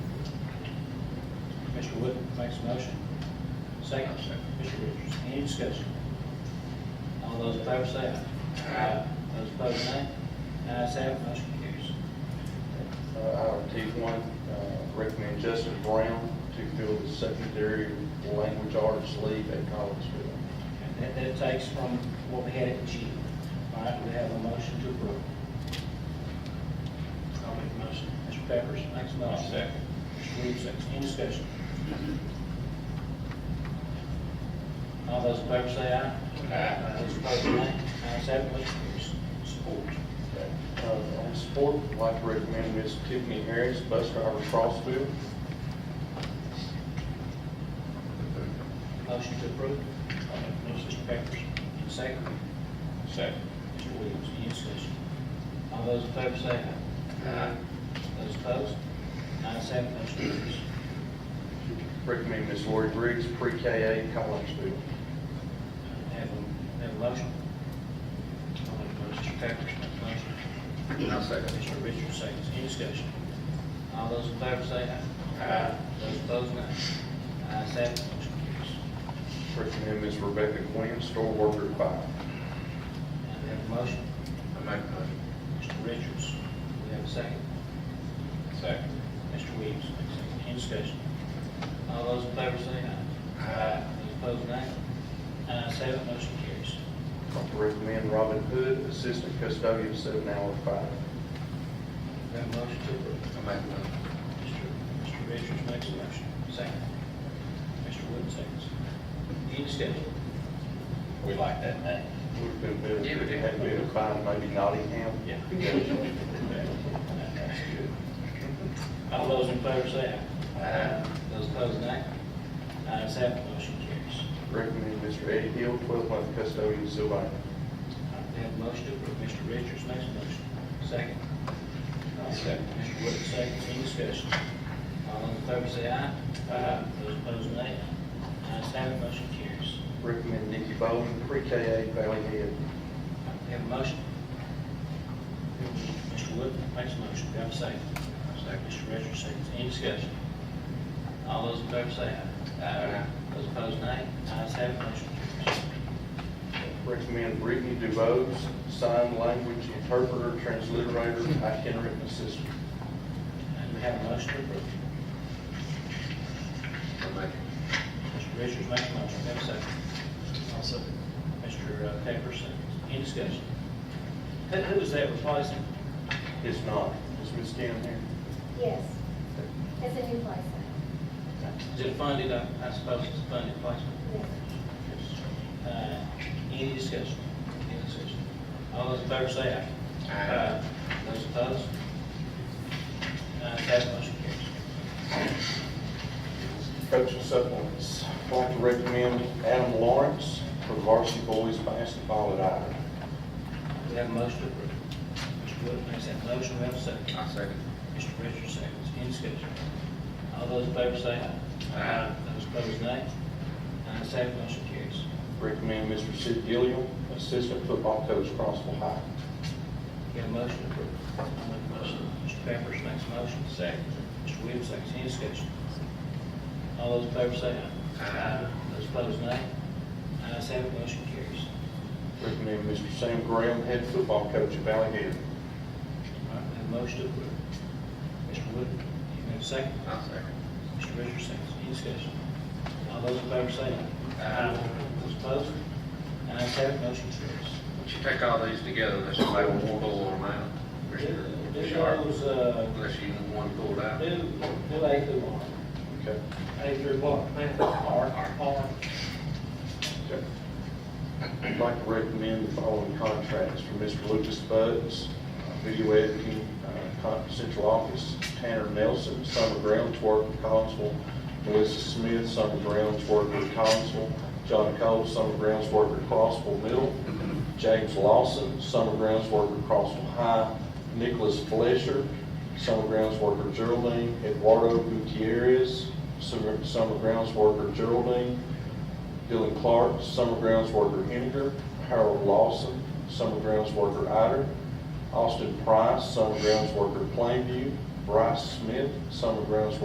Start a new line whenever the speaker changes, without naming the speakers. Mr. Wood makes a motion. Second. Mr. Richards, any discussion? All those in favor say aye. Aye. Those opposed, nay. Ayes have, it, motion carries.
Uh, Item T1, uh, recommend Justin Brown to fill the secondary language arts leave at Collinsville.
That, that takes from what we had at G. All right, we have a motion to approve. I'll make a motion. Mr. Peppers makes a motion.
Second.
Mr. Williams, second. Any discussion? All those in favor say aye.
Aye.
Those opposed, nay. Ayes have, it, motion carries. Support.
Uh, On support, I'd like to recommend Ms. Tiffany Harris, bus driver, Crossville.
Motion to approve. I'll make a motion. Mr. Peppers, in second.
Second.
Mr. Williams, any discussion? All those in favor say aye. Aye. Those opposed? Ayes have, it, motion carries. Uh,
Recommend Ms. Lori Briggs, pre-K eight, Collinsville.
Have a, have a motion? I'll make a motion. Mr. Pepperidge makes a motion. I'll second. Mr. Richards seconds. Any discussion? All those in favor say aye. Aye. Those opposed, nay. Ayes have, it, motion carries.
Recommend Ms. Rebecca Quinn, store worker, five.
And we have a motion? I make a motion. Mr. Richards, we have a second.
Second.
Mr. Williams makes a second. Any discussion? All those in favor say aye. Aye. Those opposed, nay. Ayes have, it, motion carries.
I'd like to recommend Robin Hood, assistant custodian, seven hour, five.
We have a motion to approve. Mr. Mr. Richards makes a motion, second. Mr. Wood seconds. Any discussion?
We like that name.
Would have been better if it had been assigned maybe Nottingham.
Yeah.
That's good. All those in favor say aye. Aye. Those opposed, nay. Ayes have, it, motion carries.
Recommend Mr. Eddie Hill, twelve month custodian, Sylvania.
We have a motion to approve. Mr. Richards makes a motion, second.
I'll second.
Mr. Wood seconds. Any discussion? All those in favor say aye. Aye. Those opposed, nay. Ayes have, it, motion carries.
Recommend Nikki Bowden, pre-K eight, Valley Head.
We have a motion. Mr. Wood makes a motion, do I have a second? Second. Mr. Richards seconds, any discussion? All those in favor say aye. Aye. Those opposed, nay. Ayes have, it, motion carries.
Recommend Brittany DuBose, sign language interpreter, transliterator, itinerant assistant.
And we have a motion to approve. Mr. Richards makes a motion, do I have a second? I'll second. Mr. Pepper seconds, any discussion? Who, who is that replacing?
It's not, is Ms. Stan here?
Yes, it's a new place.
Is it funded, I I suppose it's a funded placement?
Yes.
Uh, Any discussion? Any discussion? All those in favor say aye. Aye. Those opposed? Ayes have, it, motion carries.
Coaching supplements. I'd like to recommend Adam Lawrence for varsity boys basketball at Iron.
We have a motion to approve. Mr. Wood makes that motion, we have a second. I second. Mr. Richards seconds, any discussion? All those in favor say aye. Aye. Those opposed, nay. Ayes have, it, motion carries.
Recommend Mr. Sid Gilliam, assistant football coach, Crossville High.
We have a motion to approve. I'll make a motion. Mr. Pepperidge makes a motion.
Second.
Mr. Williams, seconds, any discussion? All those in favor say aye. Aye. Those opposed, nay. Ayes have, it, motion carries.
Recommend Mr. Sam Graham, head football coach at Valley Head.
All right, we have a motion to approve. Mr. Wood, you have a second?
I'll second.
Mr. Richards, seconds, any discussion? All those in favor say aye. Aye. Those opposed? Ayes have, it, motion carries.
Once you take all these together, unless you make one pull on them out, or you're-
Do
you're sharp,
those, uh,
unless you need one pulled
do,
out.
do A through R.
Okay.
A through what? Man, R. R.
Okay. I'd like to recommend the following contracts for Mr. Lucas Buds, uh, video editing, uh, con- central office, Tanner Nelson, summer grounds worker, Collinsville, Melissa Smith, summer grounds worker, Collinsville, John Cole, summer grounds worker, Crossville Middle, James Lawson, summer grounds worker, Crossville High, Nicholas Fletcher, summer grounds worker, Geraldine, Eduardo Gutierrez, summer summer grounds worker, Geraldine, Dylan Clark, summer grounds worker Henninger, Harold Lawson, summer grounds worker Ider, Austin Price, summer grounds worker Plainview, Bryce Smith, summer grounds